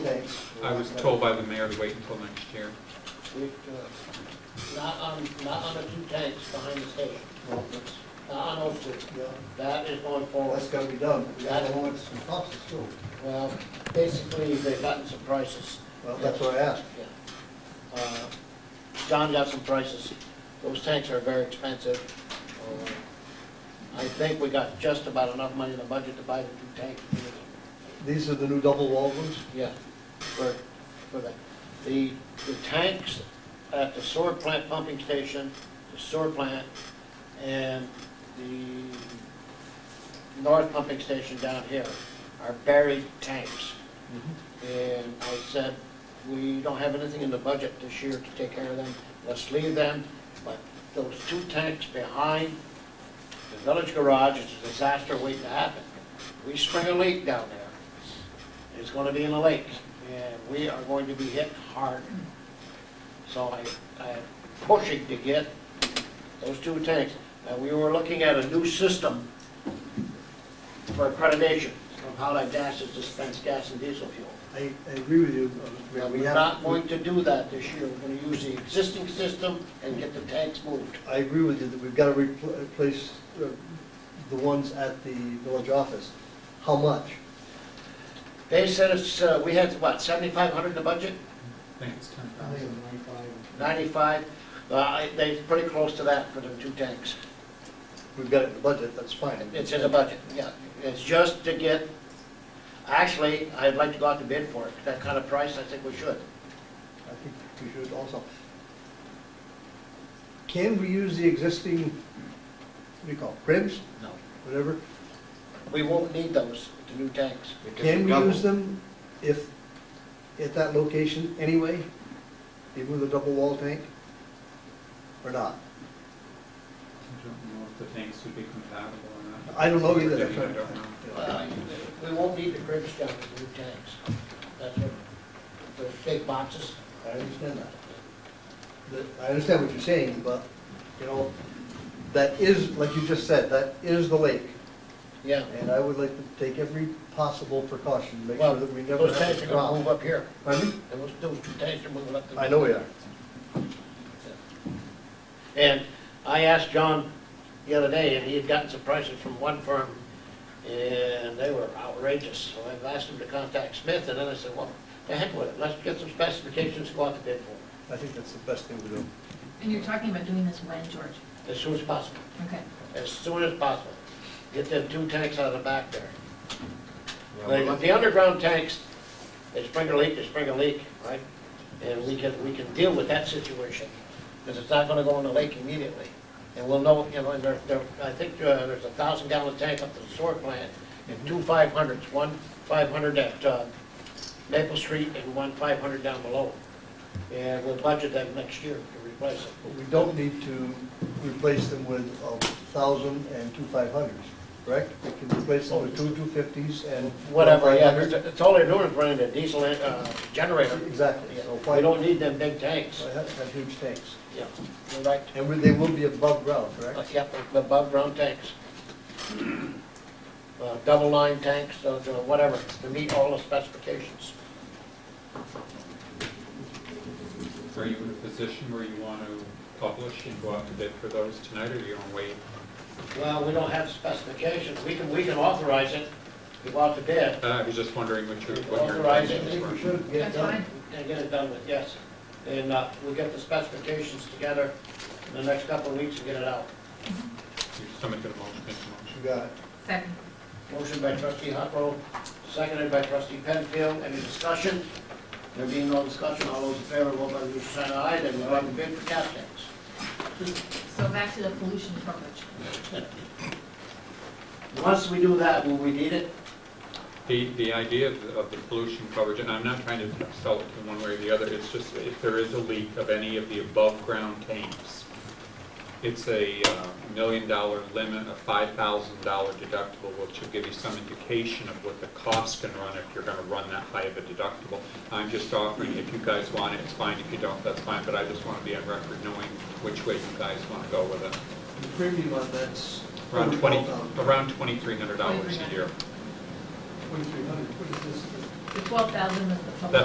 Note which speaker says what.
Speaker 1: dates.
Speaker 2: I was told by the mayor to wait until next year.
Speaker 1: It, uh,
Speaker 3: Not on, not on the two tanks behind the station,
Speaker 1: well, that's-
Speaker 3: not on those two.
Speaker 1: yeah,
Speaker 3: That is going
Speaker 1: well,
Speaker 3: forward.
Speaker 1: that's gotta be done. We gotta
Speaker 3: That-
Speaker 1: know what some costs is too.
Speaker 3: Well, basically, they've gotten some prices.
Speaker 1: Well, that's what I asked.
Speaker 3: Yeah. Uh, John got some prices. Those tanks are very expensive. Uh, I think we got just about enough money in the budget to buy the two tanks.
Speaker 1: These are the new double walled ones?
Speaker 3: Yeah, for, for that. The, the tanks at the sewer plant pumping station, the sewer plant, and the north pumping station down here are buried tanks. And I said, we don't have anything in the budget this year to take care of them, let's leave them. But those two tanks behind the village garage is a disaster waiting to happen. We spring a leak down there, it's gonna be in the lake, and we are going to be hit hard. So I, I'm pushing to get those two tanks. Now, we were looking at a new system for accreditation of how that gas is dispensed, gas and diesel fuel.
Speaker 1: I, I agree with you. uh, Mr. Mayor.
Speaker 3: Now,
Speaker 1: We
Speaker 3: we're
Speaker 1: have-
Speaker 3: not going to do that this year, we're gonna use the existing system and get the tanks moved.
Speaker 1: I agree with you that we've gotta repl- replace uh, the ones at the village office. How much?
Speaker 3: They said it's, uh, we had, what, seventy-five hundred in the budget?
Speaker 2: I think it's ten
Speaker 4: I think it
Speaker 2: thousand.
Speaker 4: was 95.
Speaker 3: Ninety-five? Uh, I- they pretty close to that for the two tanks.
Speaker 1: We've got it in the budget, that's fine.
Speaker 3: It's in the budget, yeah. It's just to get, actually, I'd like to go out to bid for it. That kind of price, I think we should.
Speaker 1: I think we should also. Can we use the existing, what do you call it, cribs,
Speaker 3: No.
Speaker 1: whatever?
Speaker 3: We won't need those, the new tanks.
Speaker 1: Can we use them if, at that location anyway, even with a double wall tank? Or not?
Speaker 2: I don't know if the tanks would be compatible or not.
Speaker 1: I don't know either.
Speaker 2: I don't know.
Speaker 3: Uh, We won't need the cribs down with the new tanks. That's what, those big boxes.
Speaker 1: I understand that. That- I understand what you're saying, but, you know, that is, like you just said, that is the lake.
Speaker 3: Yeah.
Speaker 1: And I would like to take every possible precaution, make
Speaker 3: Well,
Speaker 1: sure that we never have
Speaker 3: those tanks
Speaker 1: to
Speaker 3: are gonna move
Speaker 1: drown.
Speaker 3: up here.
Speaker 1: Pardon me?
Speaker 3: Those, those two tanks are moving up. the-
Speaker 1: I know we are.
Speaker 3: And I asked John the other day, and he had gotten some prices from one firm, and they were outrageous. So I've asked him to contact Smith, and then I said, well, to heck with it, let's get some specifications, go out to bid for it,
Speaker 1: I think that's the best thing to do.
Speaker 5: And you're talking about doing this when, George?
Speaker 3: as soon as possible,
Speaker 5: Okay.
Speaker 3: as soon as possible. Get them two tanks out of the back there.
Speaker 6: Yeah, we're
Speaker 3: The
Speaker 6: lucky-
Speaker 3: the underground tanks, they spring a leak, they spring a leak, right? And we can, we can deal with that situation, because it's not gonna go in the lake immediately. And we'll know, you know, and there, there, I think uh, there's a thousand gallon tank up to the sewer plant, and two five hundreds, one five hundred at uh, Maple Street and one five hundred down below. And we'll budget that next year to replace it.
Speaker 1: But we don't need to replace them with a thousand and two five hundreds, correct? We can replace them with two two fifties and.
Speaker 3: Whatever, yeah,
Speaker 1: 500s.
Speaker 3: it's all they're doing is running a diesel uh, generator.
Speaker 1: Exactly, so why,
Speaker 3: We don't need them big tanks.
Speaker 1: why have have huge tanks?
Speaker 3: Yeah, you're right.
Speaker 1: And will- they will be above ground,
Speaker 3: Uh,
Speaker 1: correct?
Speaker 3: Yep, above ground tanks. Uh, Double line tanks, those are whatever, to meet all the specifications.
Speaker 2: Are you in a position where you want to publish and go out to bid for those tonight, or you want to wait?
Speaker 3: Well, we don't have specifications, we can, we can authorize it, we want to bid,
Speaker 2: Uh, I was just wondering what your, what your
Speaker 3: authorize it,
Speaker 2: intentions
Speaker 1: think we
Speaker 2: were.
Speaker 1: should get it
Speaker 5: That's
Speaker 1: done.
Speaker 5: fine.
Speaker 3: and get it done with, yes. And uh, we'll get the specifications together in the next couple of weeks and get it out.
Speaker 2: Someone could motion, make a motion.
Speaker 1: You got it.
Speaker 5: Second.
Speaker 3: Motion by trustee Huckrow, seconded by trustee Penfield, any discussion? There being no discussion, all those in favor, vote by the usual sign of aye, then we'll have a bid for gas tanks.
Speaker 5: So back to the pollution coverage.
Speaker 3: Once we do that, will we need it?
Speaker 2: The, the idea of, the- of the pollution coverage, and I'm not trying to sell it to one way or the other, it's just if there is a leak of any of the above-ground tanks, it's a uh, million-dollar limit, a $5,000 deductible, which will give you some indication of what the cost can run if you're gonna run that high of a deductible. I'm just offering, if you guys want it, it's fine, if you don't, that's fine, but I just wanna be on record knowing which way you guys wanna go with it.
Speaker 1: The premium on that's.
Speaker 2: Around 20, around $2,300 a year.
Speaker 1: Twenty-three hundred, what is this?
Speaker 5: The twelve thousand was the public.